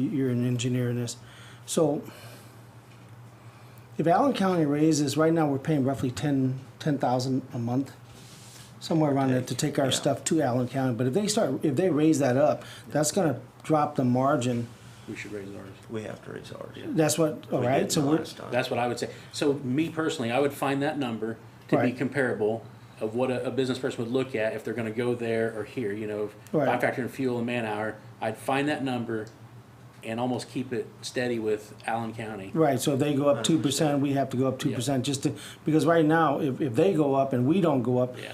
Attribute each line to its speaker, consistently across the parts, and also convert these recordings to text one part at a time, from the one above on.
Speaker 1: you're an engineer in this. So if Allen County raises, right now, we're paying roughly ten, ten thousand a month, somewhere around that, to take our
Speaker 2: Yeah.
Speaker 1: stuff to Allen County. But if they start, if they raise that up, that's gonna drop the margin.
Speaker 3: We should raise ours.
Speaker 2: We have to raise ours.
Speaker 1: That's what, all
Speaker 2: We
Speaker 1: right,
Speaker 2: did
Speaker 1: so we're,
Speaker 2: last time.
Speaker 3: That's what I would say. So me personally, I would find that number to be
Speaker 1: Right.
Speaker 3: comparable of what a, a business person would look at if they're gonna go there or here, you know, if I
Speaker 1: Right.
Speaker 3: factor in fuel and man hour, I'd find that number and almost keep it steady with Allen County.
Speaker 1: right, so if they go up two percent, we have to go up two percent, just to, because right now, if, if they go up and we don't go up,
Speaker 3: Yeah.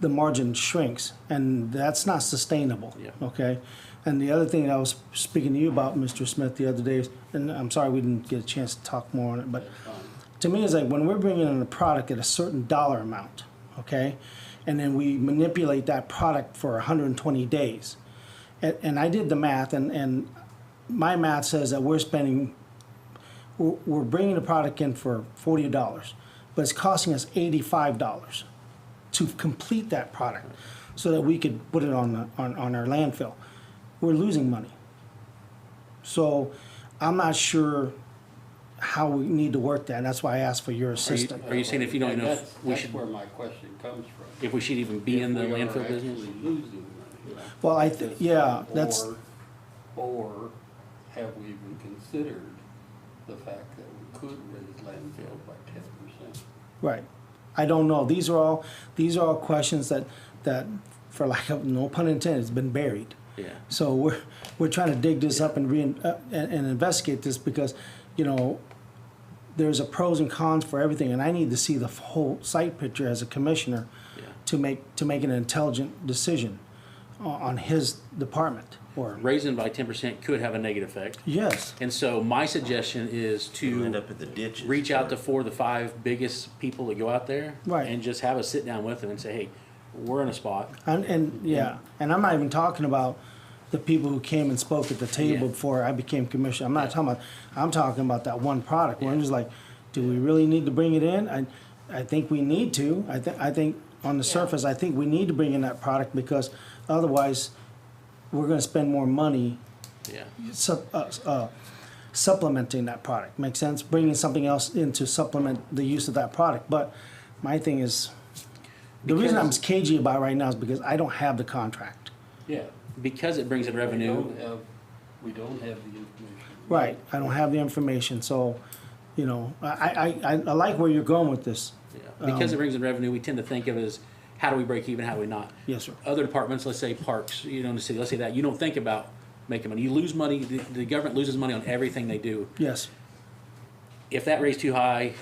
Speaker 1: the margin shrinks, and that's not sustainable.
Speaker 3: Yeah.
Speaker 1: Okay? And the other thing I was speaking to you about, Mr. Smith, the other day, is- and I'm sorry we didn't get a chance to talk more on it, but to me, it's like when we're bringing in a product at a certain dollar amount, okay? And then we manipulate that product for 120 days. And, and I did the math, and, and my math says that we're spending, we're, we're bringing the product in for $40, but it's costing us $85 to complete that product so that we could put it on, the, on, on our landfill. We're losing money. So I'm not sure how we need to work that. And that's why I asked for your
Speaker 3: Are you,
Speaker 1: assistance.
Speaker 3: are you saying if you don't
Speaker 4: And
Speaker 3: know,
Speaker 4: that's-
Speaker 3: if we
Speaker 4: That's
Speaker 3: should,
Speaker 4: where my question comes from.
Speaker 3: if we should even be in the
Speaker 4: If we are
Speaker 3: landfill business?
Speaker 4: actually losing money.
Speaker 1: Well, I th- yeah, that's-
Speaker 4: Or- Or have we even considered the fact that we could raise landfill by ten percent?
Speaker 1: Right. I don't know. These are all these are all questions that that for lack of no pun intended, has been buried.
Speaker 3: Yeah.
Speaker 1: So we're we're trying to dig this up and re uh, and, and investigate this because, you know, there's a pros and cons for everything, and I need to see the whole site picture as a commissioner
Speaker 3: Yeah.
Speaker 1: to make to make an intelligent decision on, on his department. Or
Speaker 3: Raising by ten percent could have a negative effect.
Speaker 1: yes,
Speaker 3: And so my suggestion is
Speaker 2: You
Speaker 3: to
Speaker 2: end up at the ditches.
Speaker 3: reach out to four of the five biggest people that go out there.
Speaker 1: Right.
Speaker 3: And just have a sit down with them and say, hey, we're in a spot.
Speaker 1: and, and yeah, and I'm not even talking about the people who came and spoke at the table
Speaker 3: Yeah.
Speaker 1: before I became commissioner. I'm not
Speaker 3: Yeah.
Speaker 1: talking about. I'm talking about that one product. Where I'm just like, do we really need to bring it in? I, I think we need to. I think I think on the surface, I think we need to bring in that product because otherwise, we're going to spend more money
Speaker 3: Yeah.
Speaker 1: sup, uh, uh, supplementing that product. Makes sense? Bringing something else in to supplement the use of that product. But my thing is, the reason I'm
Speaker 3: Because-
Speaker 1: cagey about it right now is because I don't have the contract.
Speaker 4: Yeah.
Speaker 3: Because it brings in
Speaker 4: We
Speaker 3: revenue,
Speaker 4: don't have, we don't have the information.
Speaker 1: Right. I don't have the information. So, you know, I, I, I, I like where you're going with this.
Speaker 3: yeah. because it brings in revenue, we tend to think of it as how do we break even, how do we not?
Speaker 1: Yes, sir.
Speaker 3: Other departments, let's say parks, you know, in the city, let's say that, you don't think about making money. You lose money, the, the government loses money on everything they do.
Speaker 1: Yes.
Speaker 3: If that rate's too high,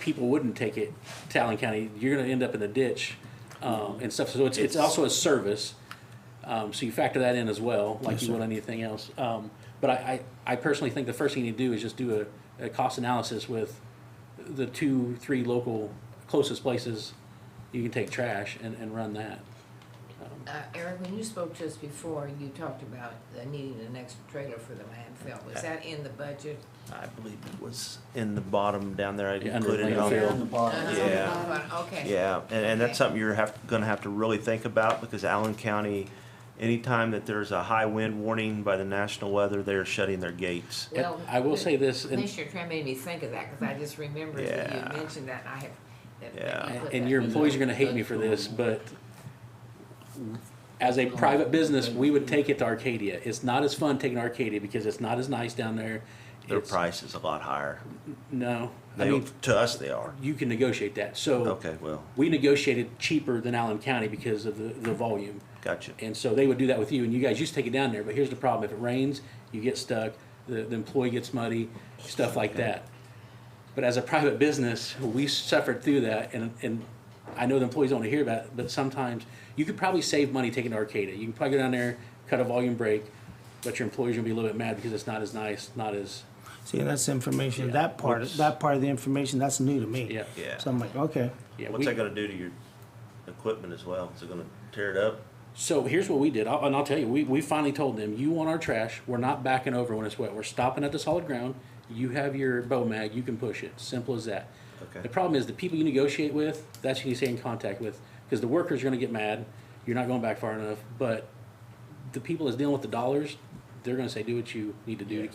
Speaker 3: people wouldn't take it to Allen County. You're gonna end up in the ditch, um, and stuff. So it's, it's also a service. Um, so you factor that in as well, like
Speaker 1: Yes,
Speaker 3: you
Speaker 1: sir.
Speaker 3: would anything else. Um, but I, I, I personally think the first thing you do is just do a, a cost analysis with the two, three local closest places you can take trash and, and run that.
Speaker 5: Uh, Eric, when you spoke to us before, you talked about uh, needing an extra trailer for the landfill. Was that in the budget?
Speaker 2: I believe it was in the bottom down there. I
Speaker 3: Yeah,
Speaker 2: didn't
Speaker 3: under
Speaker 2: put it
Speaker 3: landfill.
Speaker 2: on.
Speaker 4: the bottom.
Speaker 5: Uh-huh.
Speaker 2: Uh, Yeah.
Speaker 5: But, Okay.
Speaker 2: Yeah, and, and
Speaker 5: Okay.
Speaker 2: that's something you're have, gonna have to really think about because Allen County, anytime that there's a high wind warning by the national weather, they're shutting their gates.
Speaker 3: And
Speaker 5: Well,
Speaker 3: I will say this, and-
Speaker 5: Commissioner Tran made me think of that, because I just remembered that you had
Speaker 2: Yeah.
Speaker 5: mentioned that, and I have. that- that
Speaker 2: Yeah.
Speaker 5: you put
Speaker 3: and
Speaker 5: that
Speaker 3: your
Speaker 5: in
Speaker 3: employees are
Speaker 5: there.
Speaker 3: gonna hate me for this, but as a private business, we would take it to Arcadia. It's not as fun taking Arcadia because it's not as nice down there.
Speaker 2: Their
Speaker 3: It's-
Speaker 2: price is a lot higher.
Speaker 3: No, I
Speaker 2: They,
Speaker 3: mean,
Speaker 2: to us, they are.
Speaker 3: you can negotiate that, so.
Speaker 2: Okay, well.
Speaker 3: We negotiated cheaper than Allen County because of the, the volume.
Speaker 2: Gotcha.
Speaker 3: And so they would do that with you, and you guys used to take it down there, but here's the problem, if it rains, you get stuck, the, the employee gets muddy, stuff like that. But as a private business, we suffered through that, and, and I know the employees don't want to hear about it, but sometimes, you could probably save money taking to Arcata, you can probably go down there, cut a volume break, but your employees are gonna be a little bit mad because it's not as nice, not as,
Speaker 1: See, that's information. That part, that part of the information, that's new to me.
Speaker 3: yeah.
Speaker 2: Yeah.
Speaker 1: So I'm like, okay.
Speaker 3: yeah,
Speaker 2: What's
Speaker 3: we-
Speaker 2: that gonna do to your equipment as well? Is it gonna tear it up?
Speaker 3: So here's what we did, I'll- and I'll tell you, we, we finally told them, you want our trash, we're not backing over when it's wet, we're stopping at the solid ground, you have your bow mag, you can push it, simple as that.
Speaker 2: Okay.
Speaker 3: The problem is, the people you negotiate with, that's who you stay in contact with, because the workers are gonna get mad, you're not going back far enough, but the people that's dealing with the dollars, they're gonna say, do what you need to do to